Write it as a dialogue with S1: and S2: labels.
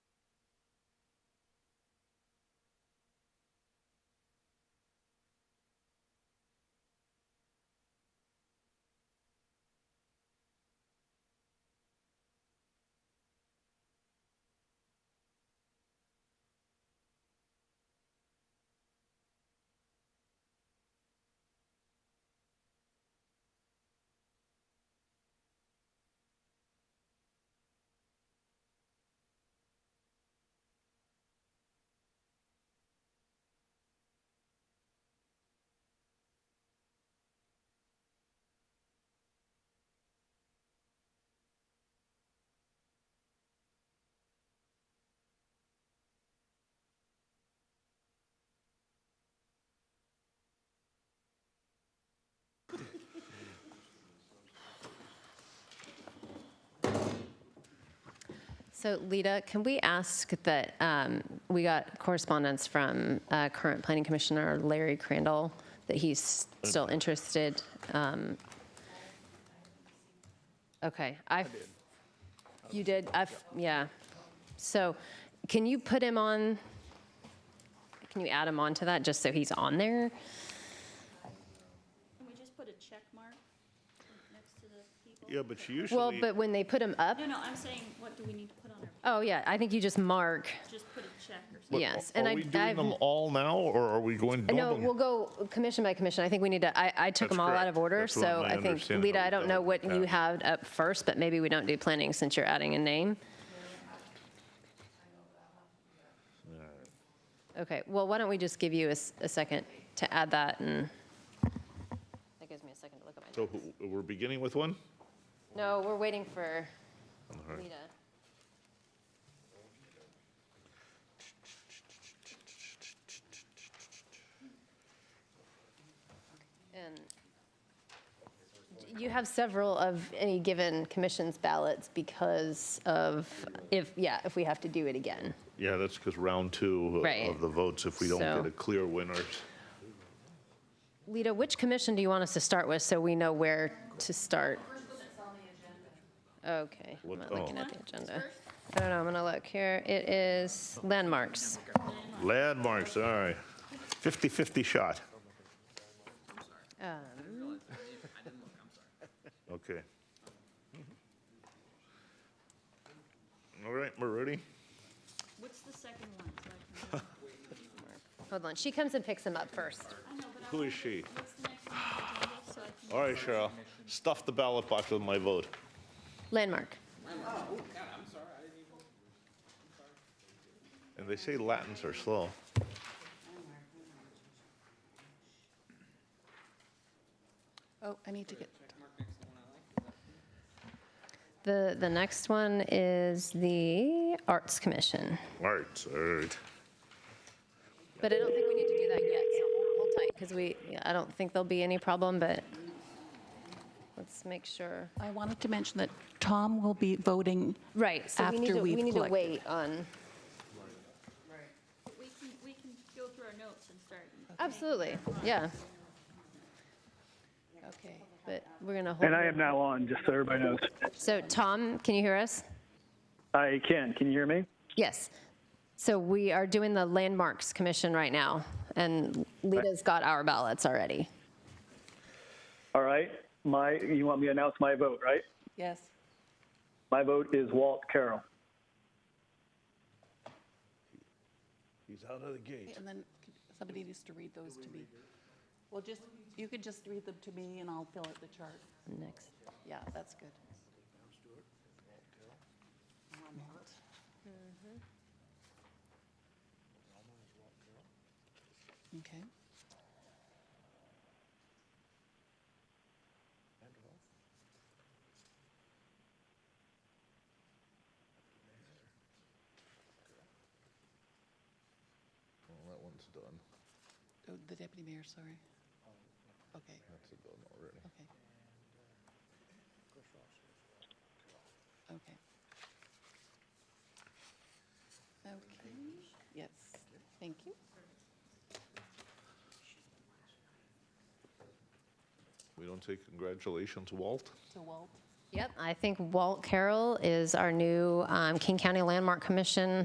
S1: So Lita, can we ask that, um, we got correspondence from uh, current planning commissioner Larry Crandall, that he's still interested. um, Okay, I, you did, I, yeah. So can you put him on, can you add him on to that, just so he's on there?
S2: Can we just put a check mark next to the people?
S3: Yeah, but she
S1: Well,
S3: usually,
S1: but when they put him up,
S2: No, no, I'm saying, what do we need to put on our,
S1: oh yeah, I think you just mark,
S2: just put a check or something?
S3: But
S1: yes. and
S3: are
S1: I-
S3: we doing
S1: I've-
S3: them all now, or are we going?
S1: No,
S3: normal?
S1: we'll go commission by commission. I think we need to, I, I took
S3: That's
S1: them all out
S3: correct.
S1: of order,
S3: That's what
S1: so
S3: my
S1: I think,
S3: understanding
S1: Lita,
S3: of
S1: I don't know
S3: how
S1: what
S3: it
S1: you
S3: works.
S1: have up first, but maybe we don't do planning since you're adding a name. Okay, well, why don't we just give you a, s- a second to add that, and that gives me a second to look at my,
S3: So who- we're beginning with one?
S1: no, we're waiting for Lita. And you have several of any given commission's ballots because of, if, yeah, if we have to do it again.
S3: Yeah, that's because round two
S1: Right.
S3: of the votes, if we don't
S1: So-
S3: get a clear winners.
S1: Lita, which commission do you want us to start with so we know where to start? Okay, I'm
S3: What-
S1: not looking
S3: oh.
S1: at the agenda. I don't know, I'm gonna look here. It is landmarks.
S3: Landmarks, all right. 50-50 shot.
S1: Uh,
S3: Okay. Mm-hmm. All right, we're ready?
S2: What's the second one? so I can-
S1: Hold on, she comes and picks them up first.
S2: I know, but I
S3: Who is
S2: wanted-
S3: she?
S2: What's the next one on the agenda, so I can-
S3: All right, Cheryl, stuff the ballot box with my vote.
S1: Landmark.
S3: And they say Latins are slow.
S4: Oh, I need to get,
S1: The, the next one is the Arts Commission,
S3: Arts, all right.
S1: but I don't think we need to do that yet, so hold- hold tight, because we, I don't think there'll be any problem, but let's make sure.
S4: I wanted to mention that Tom will be voting.
S1: Right, so we need
S4: After
S1: to, we
S4: we've
S1: need to
S4: collected.
S1: wait on,
S2: We can, we can go through our notes and start.
S1: absolutely, yeah,
S4: Okay.
S1: but we're going to hold.
S5: And I am now on, just so everybody knows.
S1: So Tom, can you hear us?
S5: I can. Can you hear me?
S1: Yes. So we are doing the Landmarks Commission right now, and Lita's got our ballots already.
S5: All right. My, you want me to announce my vote, right?
S4: Yes.
S5: My vote is Walt Carroll.
S3: He's out of the gate.
S4: And then somebody needs to read those to me. Well, just, you could just read them to me and I'll fill out the chart.
S1: Next.
S4: Yeah, that's good. Okay.
S3: That one's done.
S4: Oh, The deputy mayor, sorry. Okay,
S3: That's done already.
S4: okay. Okay. Okay, yes, thank you.
S3: We don't say congratulations, Walt?
S4: So Walt?
S1: Yep, I think Walt Carroll is our new um, King County Landmark Commission